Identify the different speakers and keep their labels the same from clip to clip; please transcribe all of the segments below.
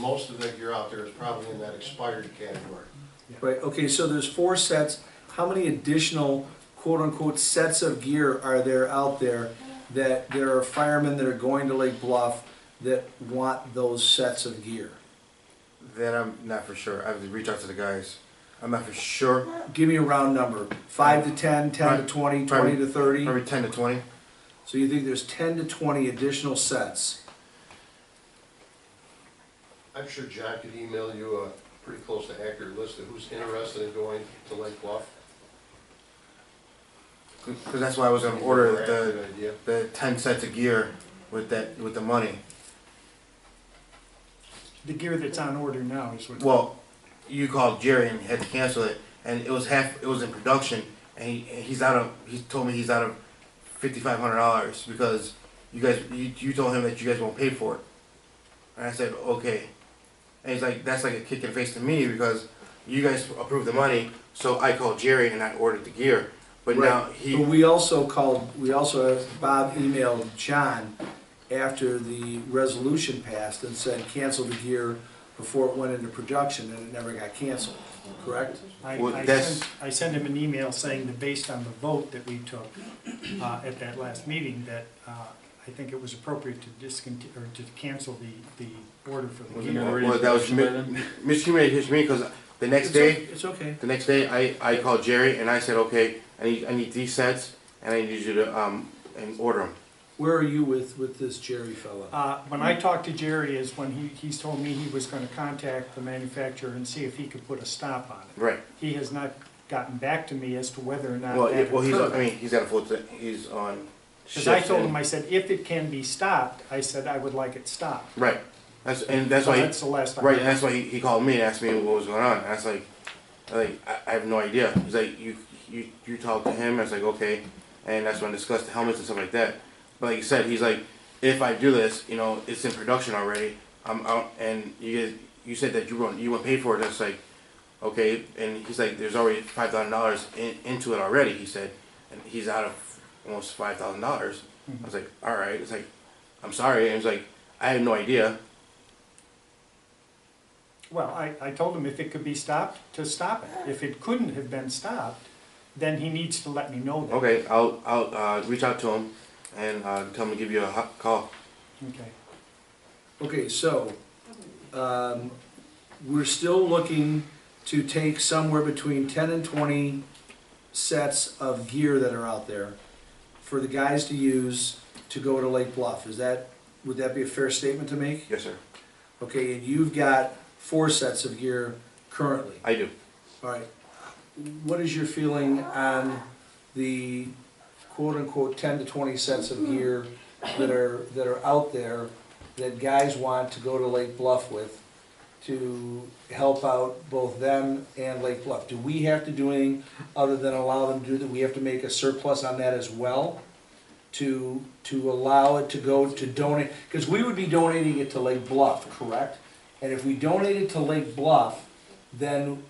Speaker 1: Most of it you're out there is probably in that expired category.
Speaker 2: Right, okay, so there's four sets. How many additional quote-unquote sets of gear are there out there that there are firemen that are going to Lake Bluff that want those sets of gear?
Speaker 3: Then I'm not for sure. I have to reach out to the guys. I'm not for sure.
Speaker 2: Give me a round number, five to 10, 10 to 20, 20 to 30.
Speaker 3: Probably 10 to 20.
Speaker 2: So you think there's 10 to 20 additional sets?
Speaker 1: I'm sure John could email you a pretty close to accurate list of who's interested in going to Lake Bluff.
Speaker 3: Because that's why I was going to order the,
Speaker 1: Accurate idea.
Speaker 3: the 10 sets of gear with that with the money.
Speaker 4: The gear that's on order now is what.
Speaker 3: Well, you called Jerry and had to cancel it, and it was half. It was in production, and he, and he's out of. He told me he's out of fifty five hundred dollars because you guys. You, you told him that you guys won't pay for it, and I said okay, and he's like that's like a kick in the face to me because you guys approved the money, so I called Jerry and I ordered the gear, but now
Speaker 2: Right.
Speaker 3: he
Speaker 2: But we also called, we also, Bob emailed John after the resolution passed and said cancel the gear before it went into production and it never got canceled, correct?
Speaker 4: I,
Speaker 3: Well,
Speaker 4: I
Speaker 3: that's-
Speaker 4: sent, I sent him an email saying that based on the vote that we took, uh, at that last meeting, that, uh, I think it was appropriate to discontinue, or to cancel the, the order for the
Speaker 3: was
Speaker 4: gear.
Speaker 3: well, that was mi- miscommunication to me because the next day.
Speaker 2: It's okay.
Speaker 3: The next day, I, I called Jerry and I said, okay, I need, I need these sets and I need you to, um, and order them.
Speaker 2: Where are you with, with this Jerry fella?
Speaker 4: Uh, when I talked to Jerry is when he, he's told me he was gonna contact the manufacturer and see if he could put a stop on it.
Speaker 3: Right.
Speaker 4: He has not gotten back to me as to whether or not
Speaker 3: Well,
Speaker 4: that
Speaker 3: it- well, he's,
Speaker 4: occurred.
Speaker 3: I mean, he's got a full, t- he's on
Speaker 4: Cause I
Speaker 3: shift.
Speaker 4: told him,
Speaker 3: and-
Speaker 4: I said, if it can be stopped, I said, I would like it stopped.
Speaker 3: Right. That's, and that's
Speaker 4: So
Speaker 3: why,
Speaker 4: that's
Speaker 3: he-
Speaker 4: the last I
Speaker 3: right, and that's why he, he called me and asked me what was going on. And I was like, I like, I, I have no idea. He's like, you, you, you talked to him. I was like, okay. And that's when I discussed the helmets and stuff like that. But like you said, he's like, if I do this, you know, it's in production already. I'm out, and you guys, you said that you won't, you won't pay for it. That's like, okay. And he's like, there's already five thousand dollars in, into it already. He said, and he's out of almost five thousand dollars. I was like, all right. It's like, I'm sorry. And he's like, I have no idea.
Speaker 4: Well, I, I told him if it could be stopped, to stop it. If it couldn't have been stopped, then he needs to let me know that.
Speaker 3: Okay, I'll I'll uh, reach out to him and uh, tell him to give you a hot call.
Speaker 4: Okay.
Speaker 2: Okay, so, um, we're still looking to take somewhere between ten and twenty sets of gear that are out there for the guys to use to go to Lake Bluff. Is that, would that be a fair statement to make?
Speaker 3: Yes, sir.
Speaker 2: Okay, and you've got four sets of gear currently.
Speaker 3: I do.
Speaker 2: All right, what is your feeling on the quote-unquote ten to twenty sets of gear that are, that are out there that guys want to go to Lake Bluff with to help out both them and Lake Bluff? Do we have to do anything other than allow them to do that? We have to make a surplus on that as well to, to allow it to go to donate? Because we would be donating it to Lake Bluff, correct? And if we donate it to Lake Bluff, then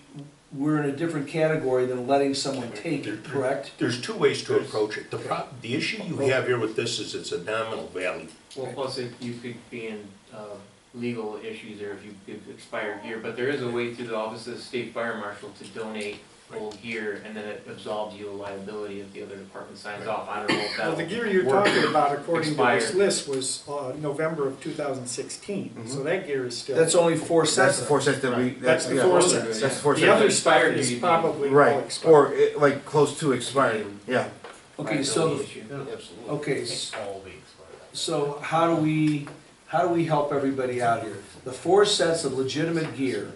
Speaker 2: we're in a different category than letting someone take it, correct?
Speaker 5: There's two ways to approach it. The prob, the issue you have here with this is it's a nominal value.
Speaker 6: Well, plus if you could be in uh, legal issues there if you give expired gear, but there is a way through the Office of the State Fire Marshal to donate old gear and then it absolves you of liability if the other department signs off. I don't know if
Speaker 4: Well,
Speaker 6: that'll.
Speaker 4: the gear you're
Speaker 6: work.
Speaker 4: talking about, according to this
Speaker 6: Expired.
Speaker 4: list, was uh, November of 2016, so that gear is still.
Speaker 2: That's only four
Speaker 3: Mm-hmm. That's
Speaker 2: sets.
Speaker 3: the four sets that we.
Speaker 4: That's the
Speaker 3: yeah,
Speaker 4: four
Speaker 3: that's-
Speaker 4: sets.
Speaker 3: That's the four
Speaker 4: The other
Speaker 3: sets.
Speaker 4: stuff
Speaker 6: Expired,
Speaker 4: is
Speaker 6: you mean.
Speaker 4: probably all
Speaker 3: Right,
Speaker 4: expired.
Speaker 3: or it, like close to expired. Yeah.
Speaker 2: Okay, so,
Speaker 6: Liability issue.
Speaker 1: Absolutely.
Speaker 2: okay, s- so how do we, how do we help everybody out here? The four sets of legitimate gear,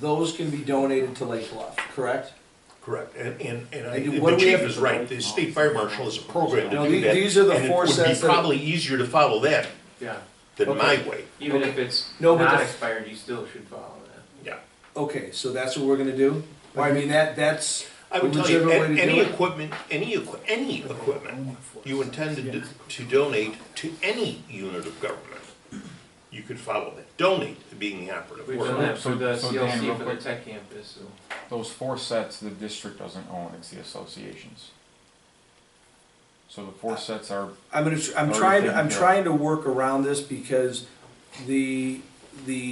Speaker 2: those can be donated to Lake Bluff, correct?
Speaker 5: Correct. And, and, and I,
Speaker 2: And
Speaker 5: and
Speaker 2: what
Speaker 5: the
Speaker 2: do we
Speaker 5: chief
Speaker 2: have-
Speaker 5: is right. The state fire marshal is a program
Speaker 2: No,
Speaker 5: to do
Speaker 2: the-
Speaker 5: that.
Speaker 2: these are the
Speaker 5: and it
Speaker 2: four
Speaker 5: would be
Speaker 2: sets that-
Speaker 5: Probably easier to follow that
Speaker 6: Yeah,
Speaker 5: than my way.
Speaker 6: even if it's
Speaker 2: No, but
Speaker 6: not
Speaker 2: the-
Speaker 6: expired, you still should follow that.
Speaker 5: Yeah.
Speaker 2: Okay, so that's what we're gonna do? Well, I mean, that, that's
Speaker 5: I
Speaker 2: a
Speaker 5: would tell you,
Speaker 2: legitimate way
Speaker 5: a-
Speaker 2: to do
Speaker 5: any
Speaker 2: it.
Speaker 5: equipment, any equi- any equipment you intend to, do- to donate to any unit of government, you could follow that. Donate being the operative
Speaker 6: We've
Speaker 5: word.
Speaker 6: done that for
Speaker 7: So-
Speaker 6: the
Speaker 7: so Dan, real
Speaker 6: CLC for the
Speaker 7: quick.
Speaker 6: tech campus, so.
Speaker 7: Those four sets the district doesn't own, it's the associations. So the four sets are,
Speaker 2: I'm gonna, tr- I'm
Speaker 7: Already
Speaker 2: trying, to-
Speaker 7: taken
Speaker 2: I'm
Speaker 7: care of.
Speaker 2: trying to work around this because the, the